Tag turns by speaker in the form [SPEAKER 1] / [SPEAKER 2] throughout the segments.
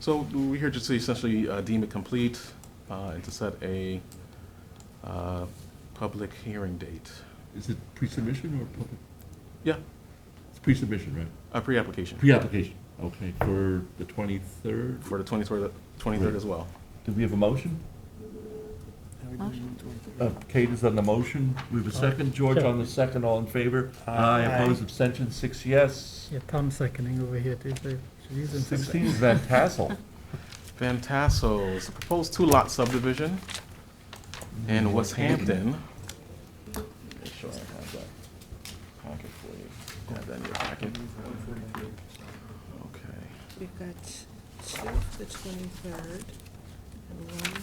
[SPEAKER 1] So we're here just to essentially uh, deem it complete uh, and to set a uh, public hearing date.
[SPEAKER 2] Is it pre-submission or public?
[SPEAKER 1] Yeah,
[SPEAKER 2] It's pre-submission, right?
[SPEAKER 1] a pre-application
[SPEAKER 2] Pre-application, okay, for the 23rd?
[SPEAKER 1] for the 23rd 23rd as well.
[SPEAKER 2] Do we have a motion?
[SPEAKER 3] Motion.
[SPEAKER 2] Uh, Kate is on the motion, we have a second, George on the second, all in favor? Aye, opposed, abstention, six yes.
[SPEAKER 3] Yeah, Tom's seconding over here, too, so she's in some-
[SPEAKER 2] 16 is Van Tassel.
[SPEAKER 1] Van Tassos, the proposed two-lot subdivision in West Hampton. Mm-hmm. Make sure I have that packet for you. Have that in your packet. Okay.
[SPEAKER 4] We've got two for the twenty-third and one.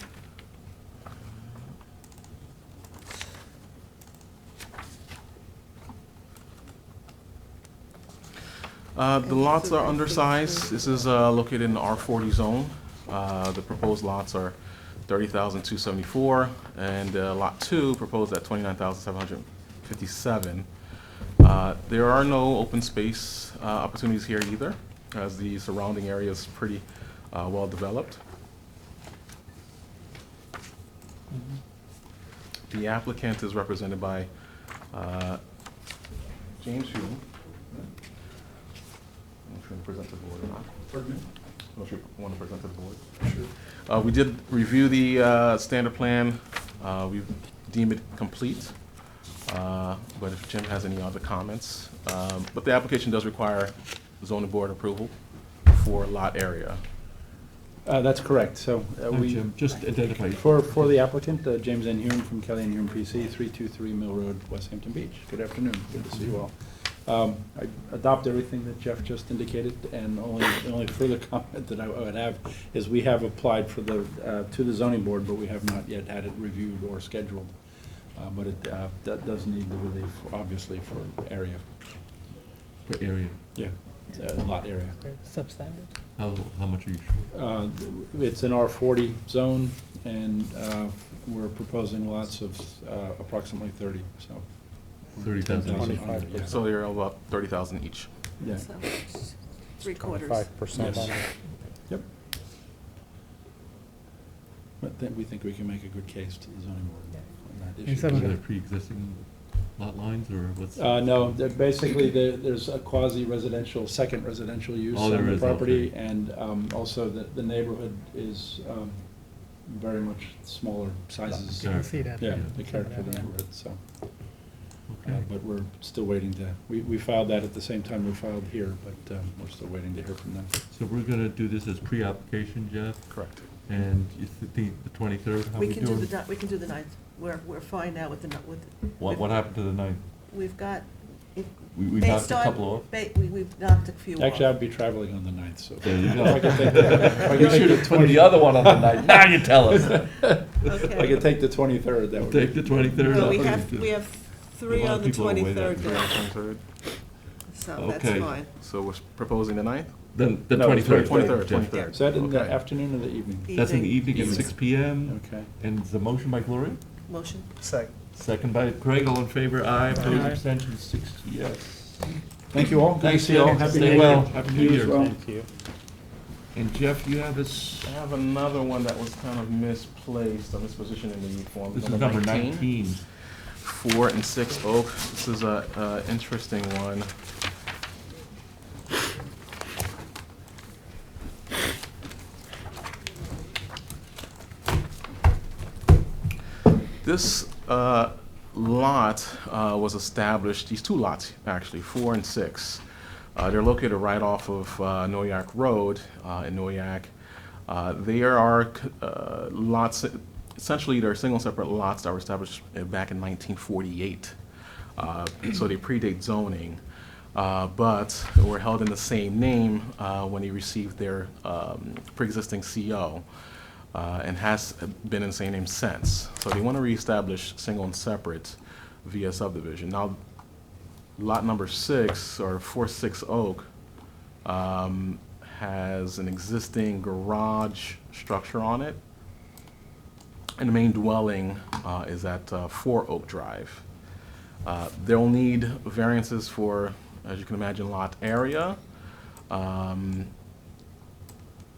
[SPEAKER 1] Uh, The
[SPEAKER 4] And
[SPEAKER 1] lots
[SPEAKER 4] these are
[SPEAKER 1] are
[SPEAKER 4] the
[SPEAKER 1] undersized.
[SPEAKER 4] things
[SPEAKER 1] This is uh, located in the R40 zone. Uh, The proposed lots are 30,274, and uh, Lot 2 proposed at 29,757. Uh, There are no open space uh, opportunities here either, as the surrounding area is pretty uh, well-developed. The applicant is represented by uh, James Hume. I'm not sure to present to the board or not. I'm not sure if you want to present to the board. Sure. We did review the uh, standard plan. Uh, We deem it complete. Uh, But if Jim has any other comments, um, but the application does require zoning board approval for lot area.
[SPEAKER 5] Uh, That's correct, so uh, we,
[SPEAKER 2] Jim, just identify.
[SPEAKER 5] for, for the applicant, uh, James N. Hume from Kelly and Hume PC, 323 Mill Road, West Hampton Beach. Good afternoon, good to see you all. Um, I adopt everything that Jeff just indicated, and only, the only further comment that I would have is we have applied for the, uh, to the zoning board, but we have not yet had it reviewed or scheduled. Uh, But it, uh, that does need the relief, obviously, for area,
[SPEAKER 2] For area,
[SPEAKER 5] yeah, uh, lot area.
[SPEAKER 3] Substandard.
[SPEAKER 2] how, how much are you sure?
[SPEAKER 5] Uh, It's an R40 zone, and uh, we're proposing lots of uh, approximately 30, so.
[SPEAKER 2] 30,000.
[SPEAKER 5] 25, yeah.
[SPEAKER 1] So they're about 30,000 each.
[SPEAKER 5] Yeah.
[SPEAKER 4] So it's Three quarters.
[SPEAKER 6] Five percent
[SPEAKER 5] Yes.
[SPEAKER 6] on it.
[SPEAKER 5] Yep. But then we think we can make a good case to the zoning board on that
[SPEAKER 3] And
[SPEAKER 5] issue.
[SPEAKER 3] some
[SPEAKER 2] Are
[SPEAKER 3] of
[SPEAKER 2] there
[SPEAKER 3] the,
[SPEAKER 2] pre-existing lot lines or what's?
[SPEAKER 5] Uh, No, they're basically, there- there's a quasi-residential, second residential use
[SPEAKER 2] Oh,
[SPEAKER 5] on
[SPEAKER 2] there
[SPEAKER 5] the
[SPEAKER 2] is,
[SPEAKER 5] property,
[SPEAKER 2] okay.
[SPEAKER 5] and um, also the the neighborhood is um, very much smaller sizes.
[SPEAKER 3] you can see that.
[SPEAKER 5] Yeah,
[SPEAKER 2] Yeah.
[SPEAKER 5] the character of the neighborhood, so. Uh,
[SPEAKER 2] Okay.
[SPEAKER 5] But we're still waiting to, we, we filed that at the same time we filed here, but um, we're still waiting to hear from them.
[SPEAKER 2] So we're gonna do this as pre-application, Jeff,
[SPEAKER 1] Correct.
[SPEAKER 2] and you think the twenty-third, how
[SPEAKER 4] We
[SPEAKER 2] we
[SPEAKER 4] can do
[SPEAKER 2] doing?
[SPEAKER 4] the, ni- we can do the ninth. We're, we're fine now with the, ni- with,
[SPEAKER 2] What, what happened to the ninth?
[SPEAKER 4] we've got, if,
[SPEAKER 2] We, we knocked
[SPEAKER 4] based
[SPEAKER 2] a
[SPEAKER 4] on.
[SPEAKER 2] couple off.
[SPEAKER 4] ba- we- We've knocked a few off.
[SPEAKER 5] Actually, I'll be traveling on the ninth, so.
[SPEAKER 2] There you go.
[SPEAKER 5] If I could take the- if I
[SPEAKER 2] You
[SPEAKER 5] could take
[SPEAKER 2] should
[SPEAKER 5] the
[SPEAKER 2] have put the
[SPEAKER 5] 20
[SPEAKER 2] other one on the ninth, now you tell us.
[SPEAKER 5] If I could take the twenty-third, that would be.
[SPEAKER 2] Take the twenty-third
[SPEAKER 4] Well,
[SPEAKER 2] off.
[SPEAKER 4] we have, we have three
[SPEAKER 2] lot of
[SPEAKER 4] on the
[SPEAKER 2] people are away that
[SPEAKER 4] twenty-third,
[SPEAKER 2] day.
[SPEAKER 4] so that's
[SPEAKER 2] Okay.
[SPEAKER 4] fine.
[SPEAKER 1] So we're proposing the 9th?
[SPEAKER 2] The, the
[SPEAKER 5] No, it's
[SPEAKER 2] twenty-third.
[SPEAKER 1] 23rd, 23rd.
[SPEAKER 5] Is that in the
[SPEAKER 1] Okay.
[SPEAKER 5] afternoon or the evening?
[SPEAKER 2] That's in the evening at
[SPEAKER 4] Evening.
[SPEAKER 2] six P M,
[SPEAKER 5] Okay.
[SPEAKER 2] and it's a motion by Gloria,
[SPEAKER 4] Motion.
[SPEAKER 2] second by Craig, all in favor, aye, opposed,
[SPEAKER 3] Aye.
[SPEAKER 2] abstentions, six, yes.
[SPEAKER 5] Thank you all. Good to
[SPEAKER 2] Thanks,
[SPEAKER 5] see you all.
[SPEAKER 2] Jeff.
[SPEAKER 5] Happy
[SPEAKER 2] Stay
[SPEAKER 5] New
[SPEAKER 2] well.
[SPEAKER 5] Year.
[SPEAKER 2] Happy New
[SPEAKER 5] You as
[SPEAKER 2] Year.
[SPEAKER 5] well.
[SPEAKER 6] Thank you.
[SPEAKER 2] And Jeff, you have us,
[SPEAKER 1] I have another one that was kind of misplaced, or mispositioned in the form.
[SPEAKER 2] this is number nineteen.
[SPEAKER 1] four and six oak. This is a, uh interesting one. This uh, lot uh, was established, these two lots, actually, four and six. Uh, They're located right off of uh, Noyak Road uh, in Noyak. Uh, There are c- uh, lots, essentially, they're single separate lots that were established uh, back in 1948. Uh, So they predate zoning, uh, but were held in the same name uh, when they received their um, pre-existing CO uh, and has been in the same name since. So they want to reestablish single and separate via subdivision. Now, lot number six, or four six Oak, um, has an existing garage structure on it. And the main dwelling uh, is at uh, four Oak Drive. Uh, They'll need variances for, as you can imagine, lot area. Um,